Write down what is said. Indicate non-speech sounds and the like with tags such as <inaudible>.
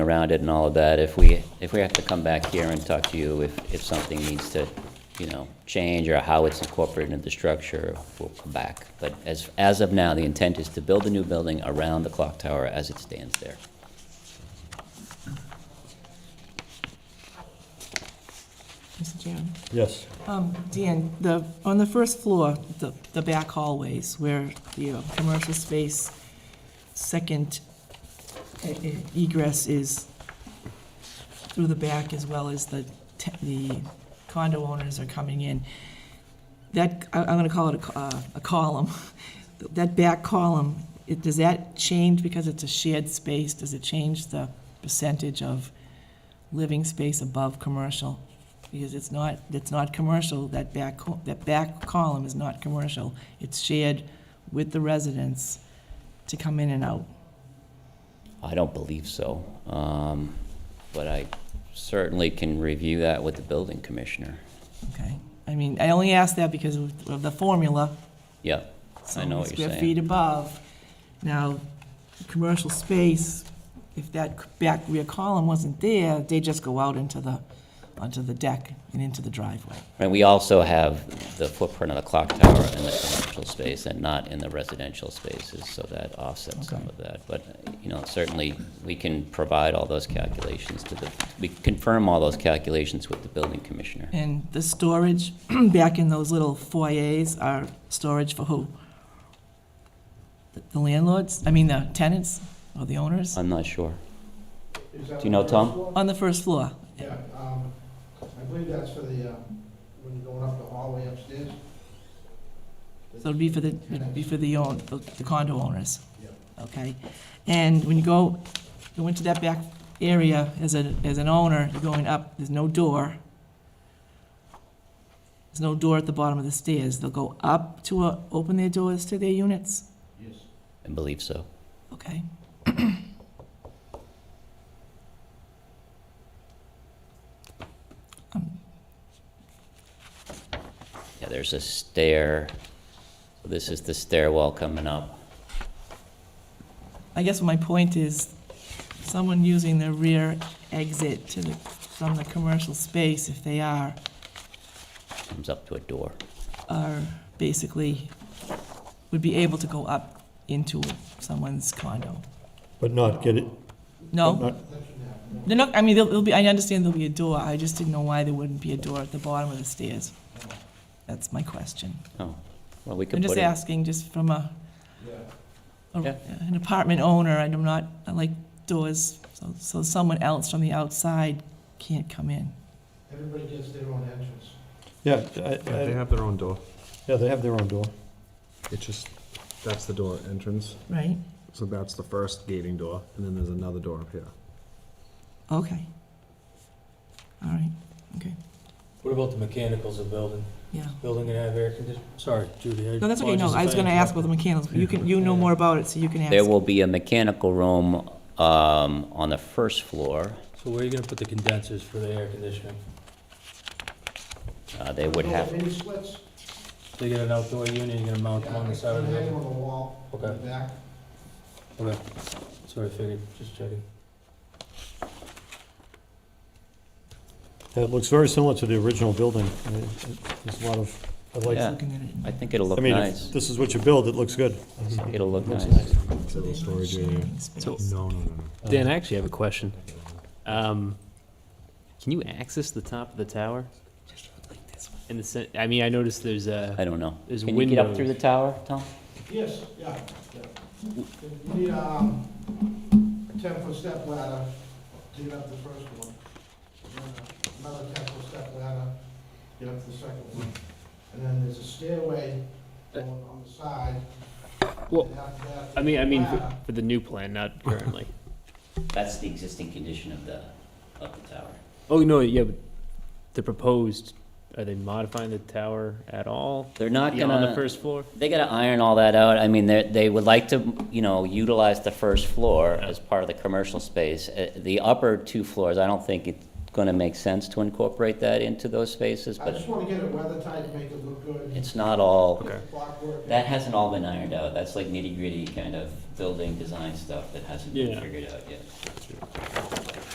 around it and all of that, if we, if we have to come back here and talk to you if, if something needs to, you know, change or how it's incorporated into the structure, we'll come back. But as, as of now, the intent is to build a new building around the clock tower as it stands there. Mr. Chairman. Yes. Um, Dan, the, on the first floor, the, the back hallways where the uh, commercial space, second e- e- egress is through the back as well as the, te- the condo owners are coming in. That, I- I'm gonna call it a co- uh, a column. That back column, it- does that change because it's a shared space? Does it change the percentage of living space above commercial? Because it's not, it's not commercial, that back, co- that back column is not commercial. It's shared with the residents to come in and out. I don't believe so, um, but I certainly can review that with the building commissioner. Okay, I mean, I only ask that because of of the formula. Yeah, I know what so you're Square saying. feet above. Now, commercial space, if that c- back rear column wasn't there, they just go out into the, onto the deck and into the driveway. And we also have the footprint of the clock tower in the commercial space and not in the residential spaces, so that offsets some Okay. of that. But, you know, certainly, we can provide all those calculations to the, we confirm all those calculations with the building commissioner. And the storage <clears throat> back in those little foyers are storage for who? The- The landlords, I mean, the tenants or the owners I'm not sure. Is that Do you know, the first Tom? floor? on the first floor? Yeah, um, I believe that's for the, um, when you're going up the hallway upstairs. So it'd be for the, it'd be for the own, the condo owners? Yeah. Okay, and when you go, go into that back area as a, as an owner, you're going up, there's no door. There's no door at the bottom of the stairs, they'll go up to, uh, open their doors to their units, Yes. I believe so. okay? Yeah, there's a stair. This is the stairwell coming up. I guess my point is, someone using the rear exit to the, from the commercial space, if they are, Comes up to a door. are basically, would be able to go up into someone's condo. But not get it, No? not, They're not, I mean, there'll there'll be, I understand there'll be a door, I just didn't know why there wouldn't be a door at the bottom of the stairs. That's my question. Oh, well, we could I'm put it. just asking, just from a, Yeah, a- Yeah. an apartment owner, and I'm not, I like doors, so, so someone else from the outside can't come in. everybody gets their own entrance. yeah, I- Yeah, they I- have their own door. yeah, they have their own door. It's just, that's the door entrance. Right. So that's the first gating door, and then there's another door up here. Okay. All right, okay, What about the mechanicals of building? yeah. Building gonna have air conditioning? Sorry, Judy. I No, that's okay, no, apologize I if was gonna ask about the interrupted. mechanicals, but you can, you know more about it, so you can ask. There will be a mechanical room, um, on the first floor. So where are you gonna put the condensers for the air conditioning? Uh, they would have, Mini splits. They get an outdoor unit, you're gonna mount them on the side of the Hang them building? on the wall, in the Okay. back. Okay, sorry, I figured, just checking. It looks very similar to the original building. I mean, it- There's a lot of, I like, yeah, Looking at it. I think it'll look I mean, if nice. this is what you build, it looks good. It'll look Looks nice. It's a So they're little not storage area. sharing space. So- No, no, no, Dan, I actually have a question. Um, can you access the top of the tower? In the sen- I mean, I noticed there's I a don't know. there's Uh, Can you windows. get up through the tower, Tom? Yes, yeah, yeah. You need, um, ten-foot step ladder to get up the first one. Then Another ten-foot step ladder, get up to the second one. And then there's a stairway on, on the side. Well, And after that, I mean, I mean for, ladder. for the new plan, not <laughs> currently. That's the existing condition of the, of the tower. oh no, yeah, but the proposed. Are they modifying the tower at all? They're not Yeah, on the gonna, first floor. they gotta iron all that out. I mean, they, they would like to, you know, utilize the first floor as part of the commercial space. Uh, The upper two floors, I don't think it's gonna make sense to incorporate that into those spaces, I but just wanna get it weather tight, make it look good. it's not all, Okay. Clockwork. that hasn't all been ironed out. That's like nitty-gritty kind of building design stuff that hasn't been Yeah. figured out yet.